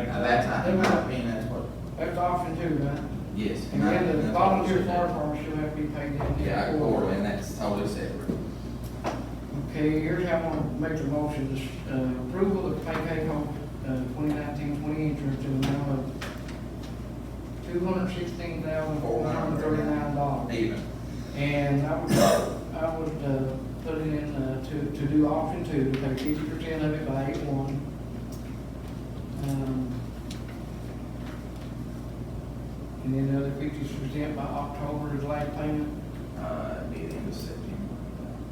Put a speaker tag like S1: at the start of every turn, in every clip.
S1: they might be in that spot.
S2: That's option two, right?
S1: Yes.
S2: And then the
S1: that's what we
S2: volunteer
S1: should do.
S2: fire department should have to be paid that.
S1: Yeah, I quarter, and that's totally separate.
S2: Okay, here's how I want to make the motion, this, uh, approval of pay pay home, uh, twenty nineteen, twenty interest to the amount of two hundred sixteen thousand, four hundred thirty-nine dollars.
S1: Even.
S2: And I would, I would, uh, put it in, uh, to, to do option two, pay fifty percent of it by eight one. Um, And then the other fifty percent by October is last payment.
S1: Uh, it'd be the end of September,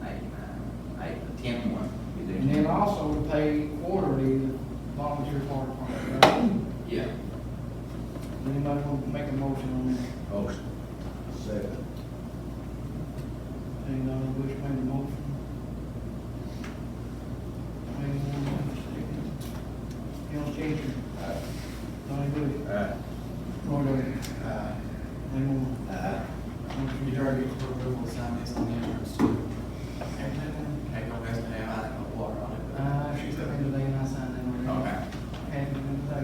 S1: eight, nine, eight, ten, one. We do
S2: And then
S1: 10.
S2: also to pay quarterly the volunteer fire department.
S1: Yeah.
S2: Anybody want to make a motion on that?
S3: Motion. Second.
S2: And, uh, Bush made a motion. Made one, Donnie second. Al Changer,
S3: Aye.
S2: Donnie Bush,
S3: Aye.
S2: Roy Darrell,
S4: Uh,
S2: Lee Moore.
S4: uh,
S2: Motion
S4: You
S2: carried.
S4: already approval sign this on the entrance too.
S2: Everything,
S4: Okay, go back to the, I don't know water on it. but-
S2: Uh, she's coming today and I signed that already.
S4: Okay.
S2: And, uh,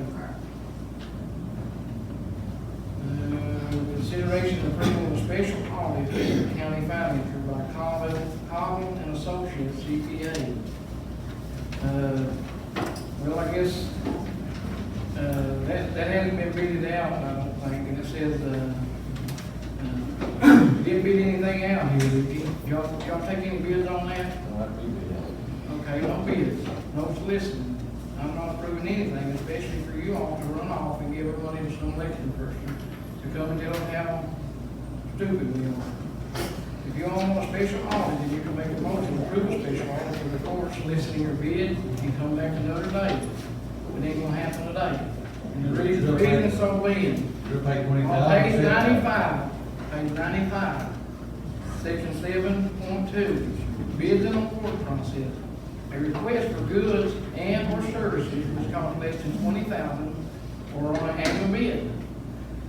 S2: Uh, consideration of approval of special audit for the county manager by Colvin, Colvin and Associates CPA. Uh, Well, I guess, uh, that, that hasn't been beaten out, I don't think, and it says, uh, uh, didn't beat anything out here, did you? Y'all, y'all take any bids on that? Okay, don't be, no soliciting. I'm not approving anything, especially for you all to run off and give everybody to some election person to come and tell them how stupid we are. If you all want a special audit, then you can make a motion to approve a special audit for the court soliciting your bid and come back another day. But ain't gonna happen today. And the reason, the reason so being,
S3: You're paying twenty
S2: on page ninety-five, page ninety-five, section seven point two, bids and award process. A request for goods and or services which cost less than twenty thousand or on an annual bid,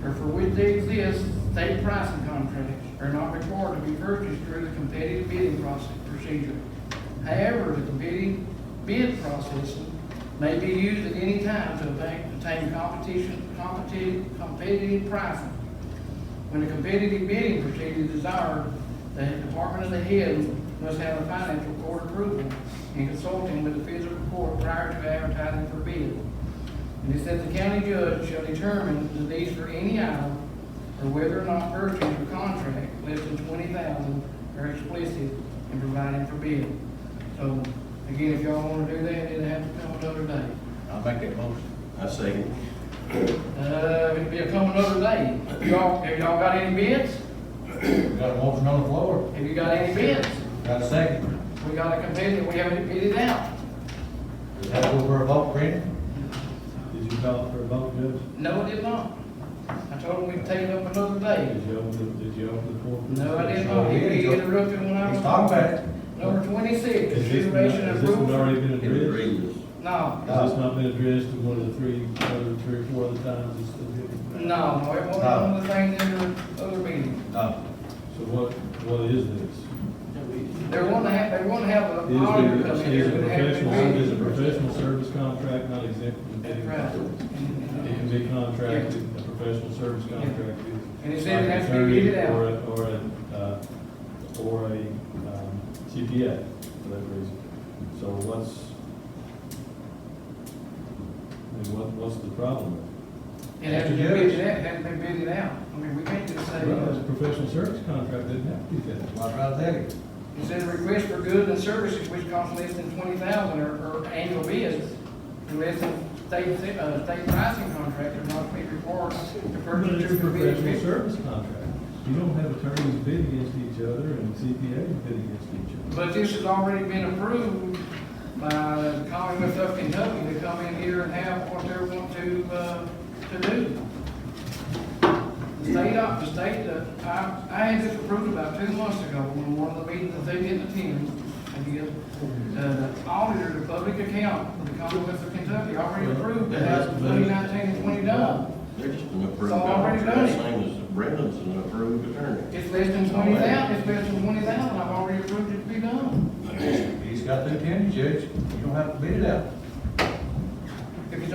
S2: or for which they exist, state pricing contracts are not required to be purchased through the competitive bidding process procedure. However, the bidding, bid process may be used at any time to obtain obtain competition, competitive, competitive pricing. When a competitive bidding procedure is desired, the department of the head must have a financial court approval and consulting with the physical court prior to advertising for bid. And it says the county judge shall determine the needs for any item or whether or not purchase or contract less than twenty thousand are explicit in providing for bid. So, again, if y'all wanna do that, it'll have to come another day.
S3: I'll make that motion.
S5: I second.
S2: Uh, it'll be a come another day. Y'all, have y'all got any bids?
S3: We got a motion on the floor,
S2: Have you got any bids?
S3: got a second.
S2: We got a competitor, we haven't bid it out.
S3: Does that go for a vote, Brendan?
S6: Did you call for a vote, Judge?
S2: No, it did not. I told him we'd take it up another day.
S6: Did you open, the- did you open the floor?
S2: No, I did not. He he interrupted when I
S3: He's
S2: was.
S3: talking about it.
S2: Number twenty-six,
S6: Is this,
S2: consideration
S6: has
S2: of
S6: this one
S2: approval.
S6: already been addressed?
S2: No,
S6: Has this not been addressed in one of the three, other three or four other times it's
S2: no,
S6: been?
S2: no, it wasn't one of the things in the other meeting.
S3: No.
S6: So what, what is this?
S2: They're wanting to have, they're wanting to have
S6: It
S2: an auditor
S6: Is
S2: come in.
S6: it, is
S2: It
S6: it
S2: would have to
S6: professional,
S2: be-
S6: is it professional service contract not exempt from the
S2: That's
S6: bidding?
S2: right.
S6: process?
S2: And-
S6: It
S2: and-
S6: can be contracted, a professional service
S2: Yeah.
S6: contract.
S2: And it
S6: is
S2: said it
S6: like
S2: has to be
S6: attorney
S2: bid out.
S6: Or, a- or a, uh, or a, um, CPA, for that reason. So what's, I mean, what, what's the problem?
S2: It has to be bid out, it has to be bid out. I mean, we can't just say,
S6: Well, it's a
S2: uh,
S6: professional service contract, doesn't have to be that.
S3: Why try to tell you?
S2: it says request for goods and services which cost less than twenty thousand or, or annual bids, unless the state, uh, state pricing contract are not to be required to
S6: But
S2: purchase
S6: it's a
S2: two bidding
S6: professional
S2: bids.
S6: service contract. You don't have attorneys bid against each other and CPAs bid against each other.
S2: But this has already been approved by the Commonwealth of Kentucky to come in here and have what they want to, uh, to do. The state, op- the state, uh, I, I had this approved about two months ago when one of the meetings that they didn't attend, I guess. Uh, the auditor of public account for the Commonwealth of Kentucky already approved that twenty nineteen and twenty done.
S5: They're just an approved
S2: So already
S5: contract,
S2: done it.
S5: same as Brendan's an approved attorney.
S2: It's less than twenty thousand, it's less than twenty thousand, I've already approved it to be done.
S3: He's got the attorney, Judge. You don't have to beat it out.